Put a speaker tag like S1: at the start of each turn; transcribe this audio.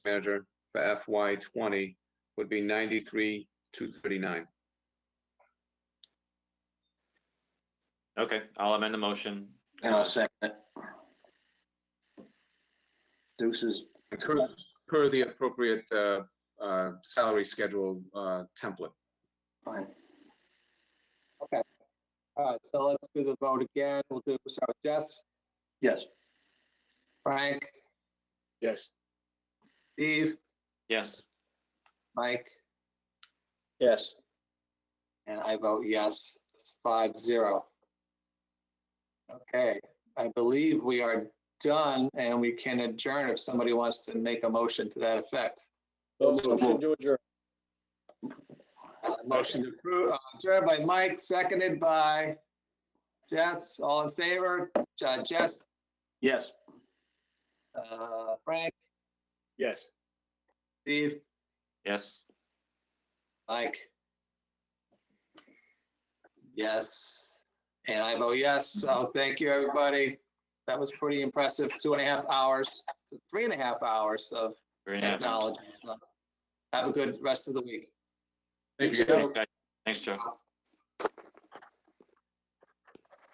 S1: manager for FY twenty would be ninety-three, two thirty-nine.
S2: Okay, I'll amend the motion.
S3: And I'll
S2: Uh,
S3: second it. Deuces,
S1: Per, per the appropriate, uh, uh, salary schedule, uh, template.
S3: fine.
S4: All right, so let's do the vote again. We'll do, so Jess,
S3: Yes.
S4: Frank,
S3: Yes.
S4: Steve,
S2: Yes,
S4: Mike,
S3: Yes.
S4: and I vote yes. It's five zero. Okay, I believe we are done and we can adjourn if somebody wants to make a motion to that effect.
S3: Motion
S5: to adjourn.
S4: Uh, Motion to approve, uh, adjourned by Mike, seconded by Jess. All in favor? Uh, Jess,
S3: Yes.
S4: uh, Frank,
S5: Yes.
S4: Steve,
S2: yes.
S4: Mike? Yes, and I vote yes, so thank you, everybody. That was pretty impressive, two and a half hours, three and a half hours of
S2: Very nice.
S4: technology. So Have a good rest of the week.
S1: Thank you, guys.
S2: Thanks, guys. Thanks, Joe.